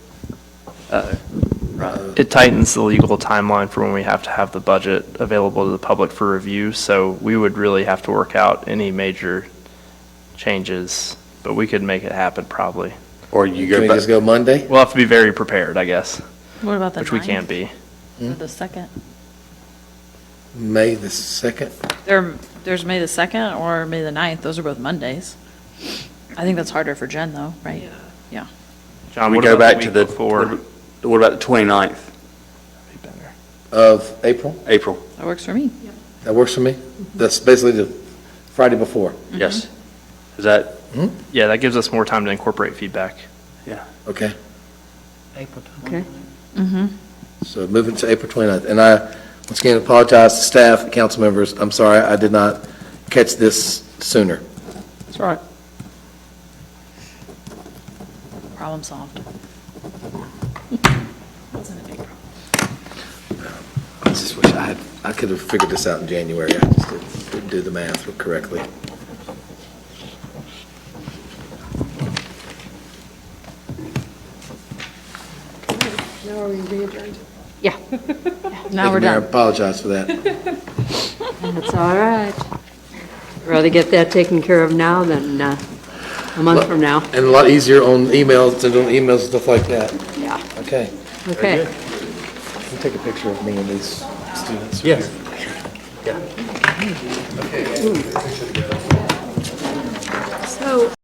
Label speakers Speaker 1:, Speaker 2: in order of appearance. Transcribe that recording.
Speaker 1: rather.
Speaker 2: It tightens the legal timeline for when we have to have the budget available to the public for review, so we would really have to work out any major changes, but we could make it happen probably.
Speaker 3: Or you
Speaker 4: Can
Speaker 3: go
Speaker 4: we just
Speaker 3: back,
Speaker 4: go Monday?
Speaker 2: We'll have to be very prepared, I guess,
Speaker 5: What about the
Speaker 2: which we can
Speaker 5: 9th?
Speaker 2: be.
Speaker 5: Or The second?
Speaker 4: May the 2nd?
Speaker 5: There, there's May the second or May the ninth, those are both Mondays. I think that's harder for Jen though, right? Yeah.
Speaker 2: John,
Speaker 3: we
Speaker 2: what
Speaker 3: go
Speaker 2: about
Speaker 3: back to
Speaker 2: week
Speaker 3: the,
Speaker 2: before?
Speaker 3: what about the 29th,
Speaker 4: Of April?
Speaker 3: April?
Speaker 5: That works for me.
Speaker 4: That works for me? That's basically the Friday before.
Speaker 3: Yes. Is that,
Speaker 2: Yeah, that gives us more time to incorporate feedback.
Speaker 3: yeah.
Speaker 4: Okay,
Speaker 1: April
Speaker 6: Okay.
Speaker 4: so moving to April 29th. And I, once again, apologize to staff, council members, I'm sorry, I did not catch this sooner.
Speaker 3: That's all right.
Speaker 5: Problem solved. Wasn't a big problem.
Speaker 4: I just wish I had, I could have figured this out in January, I just didn't- didn't do the math correctly.
Speaker 6: Now are we readjourned?
Speaker 5: Yeah.
Speaker 4: Thank
Speaker 5: Now
Speaker 4: you,
Speaker 5: we're
Speaker 4: Mayor. I
Speaker 5: done.
Speaker 4: apologize for that.
Speaker 6: That's all right. Rather get that taken care of now than uh, a month from now.
Speaker 4: And a lot easier on emails than on emails and stuff like that.
Speaker 6: Yeah.
Speaker 4: Okay.
Speaker 6: Okay.
Speaker 4: Can you take a picture of me and these students?
Speaker 3: Yes.
Speaker 6: So